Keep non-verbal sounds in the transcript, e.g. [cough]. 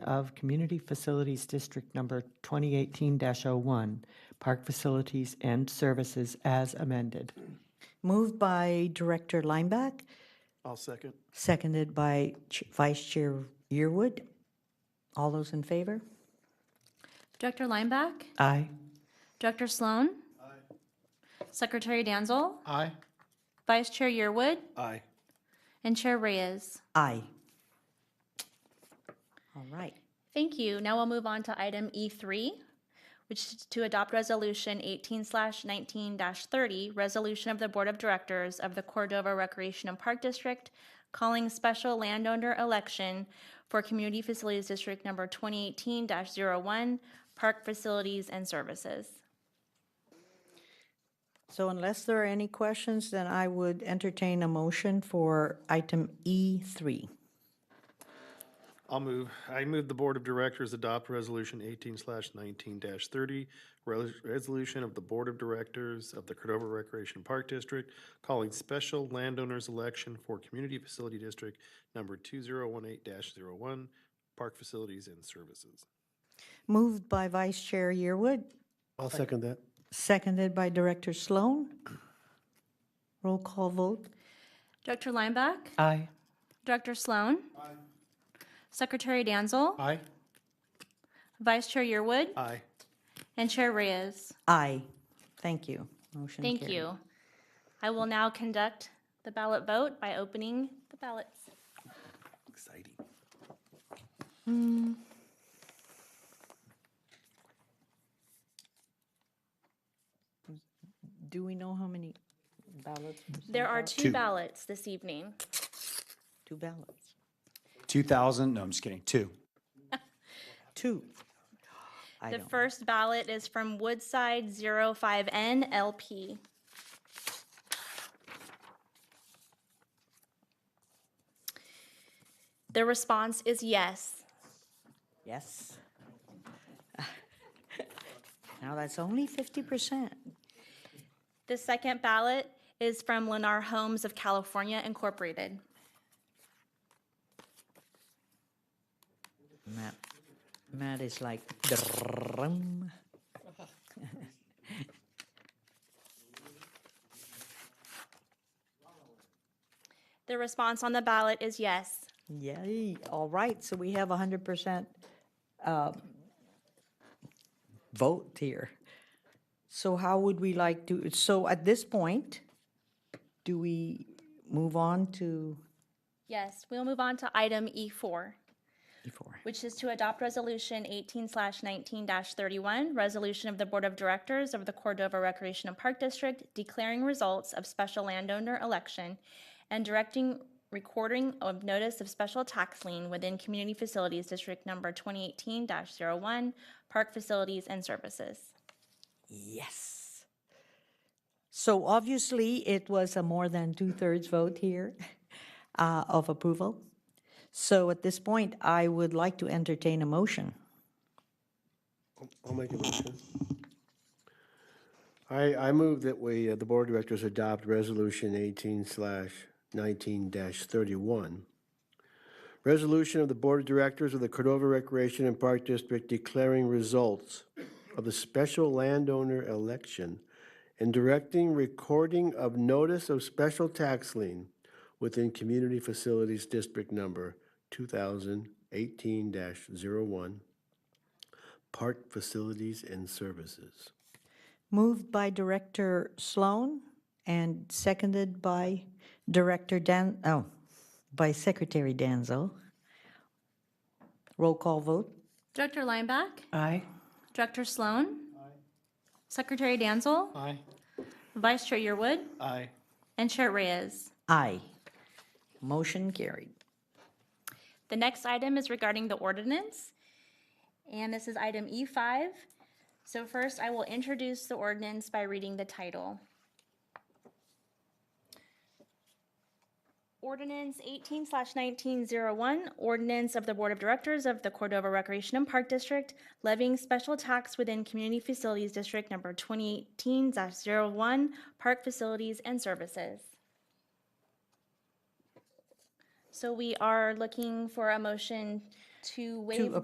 of Community Facilities District Number 2018-01, Park Facilities and Services as amended. Moved by Director Lineback, I'll second. seconded by Ch- Vice Chair Yearwood. All those in favor? Director Lineback, Aye. Director Sloan. Secretary Danzel, Aye. Vice Chair Yearwood, Aye. and Chair Reyes. Aye. All right. Thank you. Now we'll move on to item E3, which is to adopt Resolution 18/19-30, Resolution of the Board of Directors of the Cordova Recreation and Park District, calling special landowner election for Community Facilities District Number 2018-01, Park Facilities and Services. So unless there are any questions, then I would entertain a motion for item E E3. I'll move. I move the Board of Directors adopt Resolution eighteen slash nineteen dash thirty, resolution of the Board of Directors of the Cordova Recreation Park District calling special landowners election for Community Facility District number two zero one eight dash zero one, Park Facilities and Services. Moved by Vice Chair Yearwood, I'll second that. seconded by Director Sloan. Roll call vote. Director Lineback, Aye. Director Sloan. Secretary Danzel, Aye. Vice Chair Yearwood, Aye. and Chair Reyes. Aye. Thank you. Motion Thank carried. you. I will now conduct the ballot vote by opening the ballots. Exciting. Do we know how many ballots? There are two ballots this evening. Two ballots. 2,000, no, I'm just kidding, two. Two. I The don't, first ballot is from Woodside 05N LP. The response is yes. yes. [laughs] Now, that's only 50%. The second ballot is from Lennar Homes of California Incorporated. Matt, Matt is like, "Drum." The response on the ballot is yes. yay, all right, so we have 100% uh, vote here. So how would we like to, so at this point, do we move on to Yes, we'll move on to item E4. E4? which is to adopt Resolution 18/19-31, Resolution of the Board of Directors of the Cordova Recreation and Park District declaring results of special landowner election and directing recording of notice of special tax lien within Community Facilities District Number 2018-01, Park Facilities and Services. Yes. So obviously, it was a more than two-thirds vote here [laughs] uh, of approval. So at this point, I would like to entertain a motion. I'll make a motion. I, I move that we, uh, the board of directors adopt resolution eighteen slash nineteen dash thirty-one. Resolution of the board of directors of the Cordova Recreation and Park District declaring results of the special landowner election and directing recording of notice of special tax lien within Community Facilities District Number two thousand eighteen dash zero one, Park Facilities and Services. Moved by Director Sloan and seconded by Director Dan, oh, by Secretary Danzo. Roll call vote. Director Lineback? Aye. Director Sloan? Secretary Danzel? Aye. Vice Chair Yearwood? Aye. And Chair Reyes? Aye. Motion carried. The next item is regarding the ordinance, and this is item E5. So first, I will introduce the ordinance by reading the title. Ordinance 18/1901, ordinance of the Board of Directors of the Cordova Recreation and Park District levying special tax within Community Facilities District Number 2018-01, Park Facilities and Services. So we are looking for a motion to waive the